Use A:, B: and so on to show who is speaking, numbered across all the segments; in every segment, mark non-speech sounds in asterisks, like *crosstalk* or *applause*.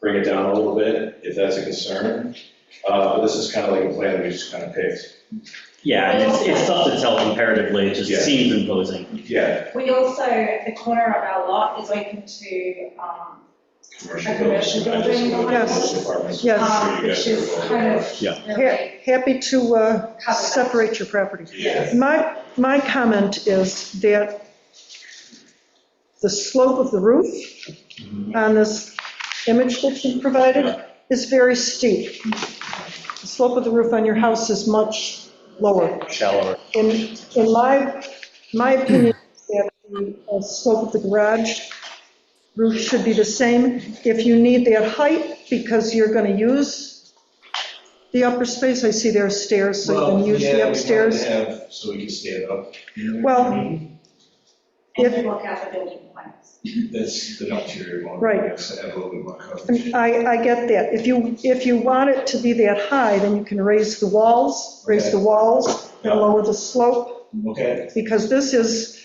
A: bring it down a little bit, if that's a concern. Uh, But this is kind of like a plan we just kind of picked.
B: Yeah, and it's, it's tough to tell comparatively, it
A: Yeah.
B: just seems imposing.
A: Yeah,
C: We also, the corner of our lot is open to, um,
A: commercial
C: A
A: buildings.
C: commercial
A: I just
C: building,
A: looked at
C: yes.
A: those apartments.
D: Yes.
A: I'm
C: um,
A: sure you
C: which
A: guys are
C: is
A: aware
C: kind
A: that.
C: of
B: Yeah.
C: really
D: Happy to uh,
C: covered.
D: separate your properties.
A: Yeah,
D: My, my comment is that the slope of the roof on this image that you provided is very steep. The slope of the roof on your house is much lower.
B: Shallower.
D: In, in my, my opinion, that the uh, slope of the garage roof should be the same. If you need that height, because you're going to use the upper space, I see there are stairs, so you can use
A: Well, yeah, we
D: the
A: wanted
D: upstairs.
A: to have- So we can stand up.
D: Well-
C: And
D: If-
C: you look out the building plans.
A: That's the interior one.
D: Right.
A: Yes, I have a little bit more
D: I, mean,
A: coverage.
D: I I get that. If you, if you want it to be that high, then you can raise the walls, raise the walls and lower the slope,
A: Okay.
D: because this is,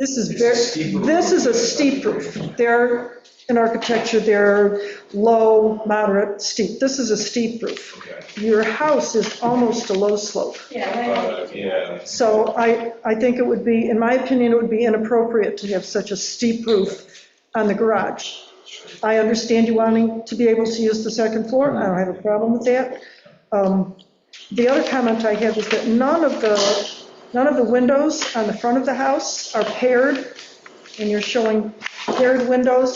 D: this is
A: It's a
D: very,
A: steep roof.
D: this is a steep roof. They're, in architecture, they're low, moderate, steep. This is a steep roof.
A: Okay.
D: Your house is almost a low slope.
C: Yeah,
A: Uh, Yeah.
D: So I, I think it would be, in my opinion, it would be inappropriate to have such a steep roof on the garage. I understand you wanting to be able to use the second floor, I don't have a problem with that. Um, The other comment I have is that none of the, none of the windows on the front of the house are paired, and you're showing paired windows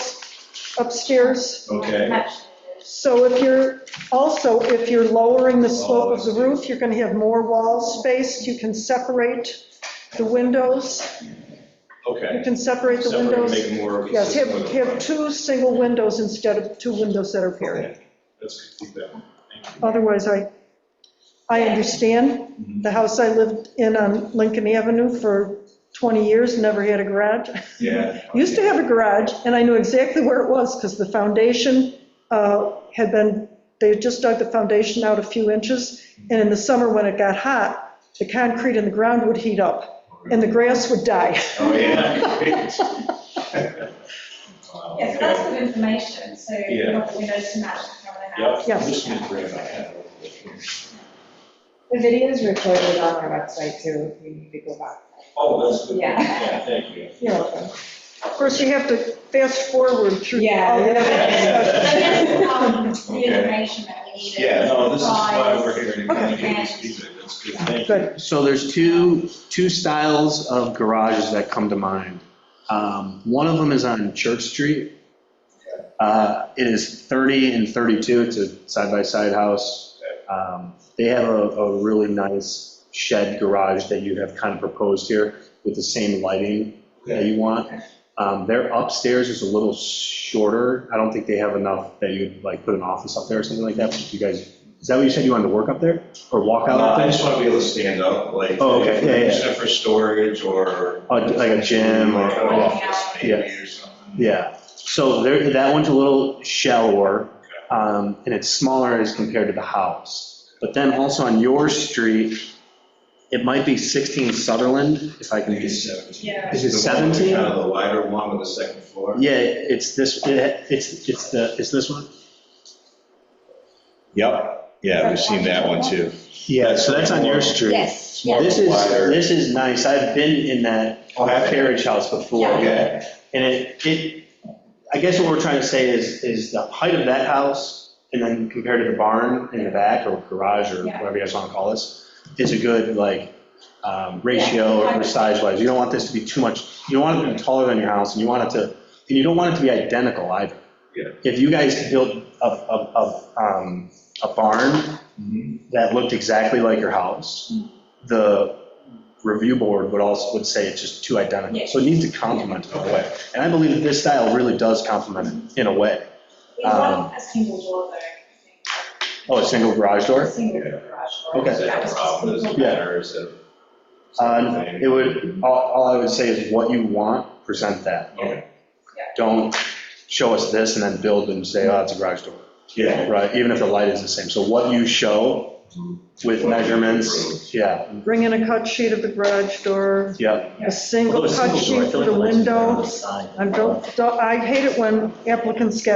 D: upstairs.
C: when,
A: Okay.
C: match,
D: So if you're, also, if you're lowering the slope of the roof, you're going to have more wall space, you can separate the windows,
A: Okay.
D: you can separate the
A: Separate and
D: windows.
A: make it more
D: Yes, have,
A: consistent with the
D: have
A: plan.
D: two single windows instead of two windows that are paired.
A: Okay. Let's keep that one. Thank you.
D: Otherwise, I, I understand. The house I lived in on Lincoln Avenue for 20 years never had a garage.
A: Yeah.
D: Used to have a garage, and I knew exactly where it was, because the foundation uh, had been, they had just dug the foundation out a few inches, and in the summer, when it got hot, the concrete in the ground would heat up, and the grass would die.
A: Oh,
D: *laughs*
A: yeah. Wow,
C: yeah, so
A: okay.
C: that's good information, so you
A: Yeah.
C: want the windows to match the front of the house.
A: Yep.
D: Yes.
A: Just gonna bring it back up.
E: The video is recorded on our website too, if you need to go back.
A: Oh, that's good.
E: Yeah.
A: Yeah, thank you.
E: You're welcome.
D: Of course, you have to fast forward through.
E: Yeah.
D: all that.
C: So that's, um, the
A: Okay.
C: information that we needed.
A: Yeah, no, this is why we're here, to kind
C: Okay.
A: of give this feedback, that's good, thank you.
D: Good.
F: So there's two, two styles of garages that come to mind. Um, One of them is on Church Street. Uh, It is 30 and 32, it's a side-by-side house. Um, They have a, a really nice shed garage that you have kind of proposed here with the same lighting that you want. Um, Their upstairs is a little shorter, I don't think they have enough that you'd like put an office up there or something like that, but you guys, is that what you said you wanted to work up there, or walk out
A: Uh,
F: up
A: I
F: there?
A: just want to be able to stand up, like,
F: Oh, okay, yeah, yeah.
A: except for storage or.
F: Oh, like a gym or-
A: Like an office
F: yeah.
A: maybe or something.
F: Yeah, so there, that one's a little shallower, um, and it's smaller as compared to the house. But then also on your street, it might be 16 Sutherland, if I
A: I
F: can
A: think it's
F: just,
A: seventeen.
C: Yeah.
F: is it
A: The one with
F: 17?
A: Kind of the wider one with the second floor.
F: Yeah, it's this, it- it's, it's the, it's this one?
A: Yep, yeah,
C: we've seen that one too.
F: Yeah, so that's on your street.
E: Yes.
A: More
F: This is,
A: wider.
F: this is nice, I've been in that
A: Oh, have you?
F: carriage house before.
A: Okay,
F: And it, it, I guess what we're trying to say is, is the height of that house, and then compared to the barn in the back, or garage, or
C: Yeah.
F: whatever you guys want to call this, is a good, like, um, ratio or size-wise. You don't want this to be too much, you don't want it to be taller than your house, and you want it to, and you don't want it to be identical either.
A: Yeah.
F: If you guys built a, a, a, um, a barn
A: Mhm.
F: that looked exactly like your house, the review board would also, would say it's just too identical.
C: Yeah.
F: So it needs to complement in a way. And I believe that this style really does complement it in a way.
C: We
F: Um,
C: want a single door though. I
F: Oh, a single garage
C: think. A
F: door?
C: Single
A: Yeah.
C: garage door.
F: Okay.
A: is
C: That
A: that
C: was
A: a
C: just
A: problem, is it
C: simple.
A: better, is it?
F: Uh, It would, all, all I would say is what you want, present that.
A: Okay.
F: Don't show us this and then build and say, oh, it's a garage door,
A: Yeah.
F: right? Even if the light is the same. So what you show with
A: What you
F: measurements, yeah,
D: Bring in a cut sheet of the garage door,
F: yeah.
D: a single
B: Although a single door,
D: cut
B: I
D: sheet
B: feel
D: for
B: like
D: the
B: it lets you down the
D: window.
B: side.
D: I don't, don't- I hate it when applicants get